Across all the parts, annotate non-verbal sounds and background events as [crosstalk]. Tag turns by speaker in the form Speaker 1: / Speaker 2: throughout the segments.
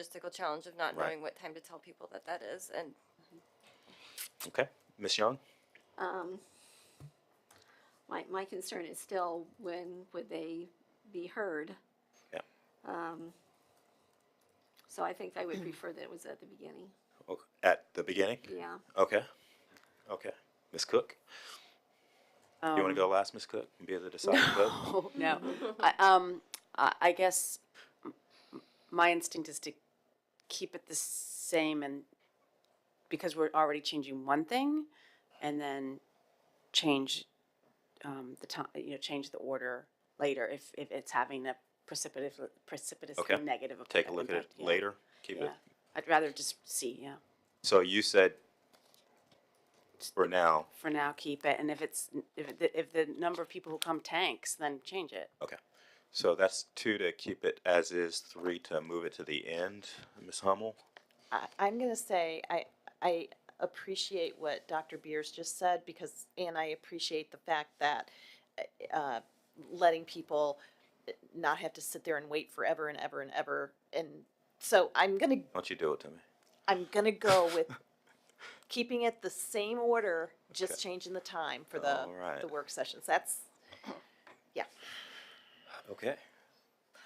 Speaker 1: logistical challenge of not
Speaker 2: Right.
Speaker 1: knowing what time to tell people that that is. And
Speaker 2: Okay, Ms. Young?
Speaker 3: My, my concern is still when would they be heard? Um,
Speaker 2: Yeah.
Speaker 3: So I think I would prefer that it was at the beginning.
Speaker 2: O- At the beginning?
Speaker 3: Yeah.
Speaker 2: Okay, okay. Ms. Cook? You want to go last, Ms. Cook, and be the deciding vote?
Speaker 4: Oh, [laughs] no.
Speaker 2: [laughs]
Speaker 4: I, um, I, I guess m- m- my instinct is to keep it the same and because we're already changing one thing and then change um, the time, you know, change the order later if, if it's having a precipitous, precipitously
Speaker 2: Okay.
Speaker 4: negative. ef-
Speaker 2: Take a look at it
Speaker 4: impact, yeah.
Speaker 2: later, keep it.
Speaker 4: Yeah. I'd rather just see, yeah.
Speaker 2: So you said for now,
Speaker 4: For now, keep it. And if it's, if the, if the number of people who come tanks, then change it.
Speaker 2: okay. So that's two to keep it as is, three to move it to the end, Ms. Hummel?
Speaker 5: I, I'm going to say I, I appreciate what Dr. Beers just said because, and I appreciate the fact that uh, letting people not have to sit there and wait forever and ever and ever. And so I'm going to,
Speaker 2: Why don't you do it to me?
Speaker 5: I'm going to go with
Speaker 2: [laughs]
Speaker 5: keeping it the same order, just
Speaker 2: Okay.
Speaker 5: changing the time for the,
Speaker 2: All right.
Speaker 5: the work sessions. That's, yeah.
Speaker 2: Okay.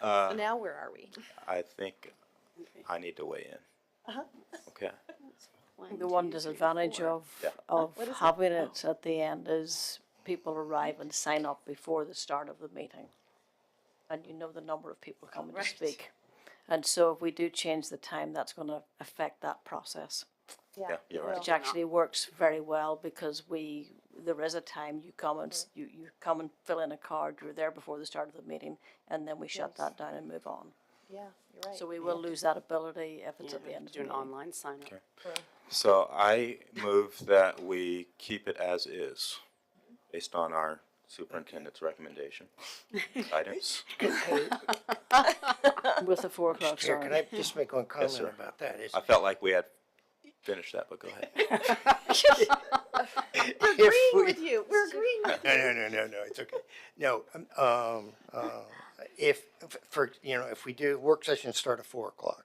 Speaker 2: Uh,
Speaker 5: So now where are we?
Speaker 2: I think I need to weigh in. Okay,
Speaker 6: The one disadvantage of,
Speaker 2: Yeah.
Speaker 6: of having it at the end is people arrive and sign up before the start of the meeting. And you know the number of people coming to speak. And so if we do change the time, that's gonna affect that process,
Speaker 2: yeah, you're right.
Speaker 6: which actually works very well because we, there is a time you come and, s- you, you come and fill in a card, you're there before the start of the meeting, and then we shut that down and move on.
Speaker 5: Yeah, you're right.
Speaker 6: So we will lose that ability if it's
Speaker 4: Yeah,
Speaker 6: at the end of the
Speaker 4: Do an
Speaker 2: Mm-hmm.
Speaker 6: meeting.
Speaker 4: online sign up.
Speaker 2: So I move that we keep it as is, based on our superintendent's recommendation, guidance.
Speaker 7: Hey,
Speaker 6: With the four o'clock
Speaker 7: Chair,
Speaker 6: start.
Speaker 7: can I just make one comment
Speaker 2: sir.
Speaker 7: about that? Is
Speaker 2: I felt like we had finished that, but go ahead.
Speaker 7: if we-
Speaker 5: with you. We're agreeing with
Speaker 7: No, no, no, no, no, it's okay. No, um, um, uh, if, f- for, you know, if we do, work sessions start at four o'clock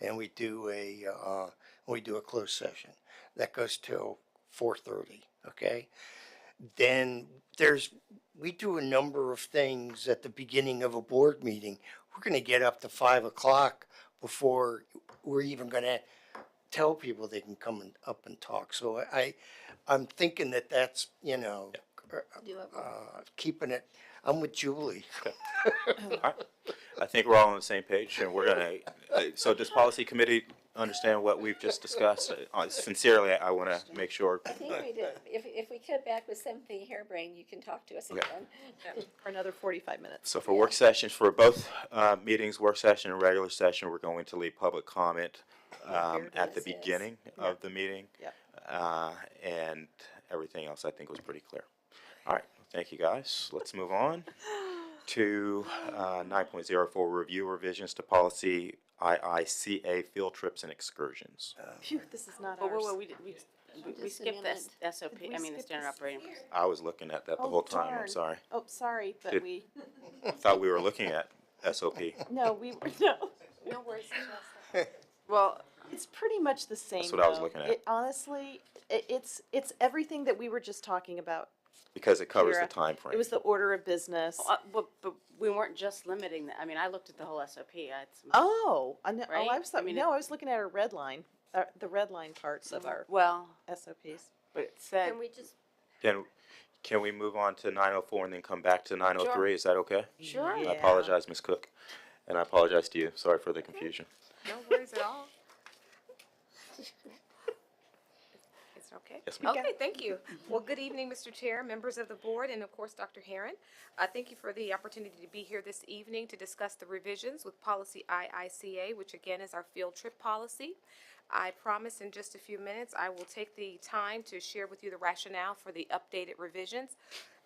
Speaker 7: and we do a, uh, we do a closed session, that goes till four thirty, okay? Then there's, we do a number of things at the beginning of a board meeting. We're gonna get up to five o'clock before we're even gonna tell people they can come and up and talk. So I, I'm thinking that that's, you know, uh, keeping it, I'm with Julie.
Speaker 2: All right. I think we're all on the same page, and we're gonna, uh, so does policy committee understand what we've just discussed? Uh, Sincerely, I wanna make sure,
Speaker 8: I think we did, if, if we cut back with something harebrained, you can talk to us
Speaker 2: Okay.
Speaker 8: again.
Speaker 5: for another 45 minutes.
Speaker 2: so for work sessions, for both, uh, meetings, work session and regular session, we're going to leave public comment, um, at the
Speaker 8: Yes, yes.
Speaker 2: beginning of the meeting.
Speaker 5: Yep.
Speaker 2: Uh, and everything else I think was pretty clear. All right, thank you guys. Let's move
Speaker 5: [sighs]
Speaker 2: on to uh, 9.04 review revisions to policy IICA field trips and excursions.
Speaker 5: Phew, this is not
Speaker 4: Whoa,
Speaker 5: ours.
Speaker 4: whoa, whoa, we, did- we, we- we
Speaker 8: Just a
Speaker 4: skipped the
Speaker 8: minute.
Speaker 4: S- SOP, I mean, the standard operating. procedure.
Speaker 2: I was looking at that the
Speaker 5: Oh,
Speaker 2: whole time. I'm
Speaker 5: darn.
Speaker 2: sorry.
Speaker 5: Oh, sorry, but
Speaker 2: Did-
Speaker 5: we,
Speaker 2: I thought we were looking at SOP.
Speaker 5: no, we, [laughs] were- no.
Speaker 8: No worries.
Speaker 4: Well,
Speaker 5: It's pretty much the same.
Speaker 2: what I was
Speaker 5: though.
Speaker 2: looking at.
Speaker 5: It- Honestly, it, it's, it's everything that we were just talking about.
Speaker 2: Because Oh, it covers the
Speaker 5: Kira.
Speaker 2: time frame.
Speaker 5: It was the order of business.
Speaker 4: uh, but, but we weren't just limiting that, I mean, I looked at the whole SOP, I had some.
Speaker 5: Oh, I know, oh, I
Speaker 4: Right?
Speaker 5: was,
Speaker 4: I
Speaker 5: thought-
Speaker 4: mean,
Speaker 5: no,
Speaker 4: it-
Speaker 5: I was looking at our red line, uh, the red line parts of our
Speaker 4: Well,
Speaker 5: SOPs.
Speaker 4: but it said,
Speaker 1: can we just
Speaker 2: Can, can we move on to 9.04 and then come back to 9.03? Is that okay?
Speaker 4: sure,
Speaker 2: I apologize, Ms. Cook. And I apologize to you. Sorry for the confusion.
Speaker 1: no worries at all?
Speaker 9: Is it okay?
Speaker 2: Yes, ma'am.
Speaker 9: Okay, thank you. Well, good evening, Mr. Chair, members of the board, and of course, Dr. Herron. Uh, Thank you for the opportunity to be here this evening to discuss the revisions with policy IICA, which again is our field trip policy. I promise in just a few minutes, I will take the time to share with you the rationale for the updated revisions.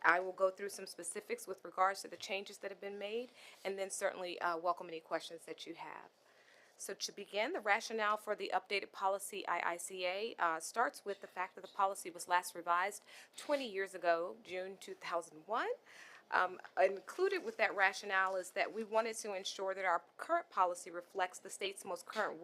Speaker 9: I will go through some specifics with regards to the changes that have been made, and then certainly uh, welcome any questions that you have. So to begin, the rationale for the updated policy IICA uh, starts with the fact that the policy was last revised 20 years ago, June 2001. Um, Included with that rationale is that we wanted to ensure that our current policy reflects the state's most current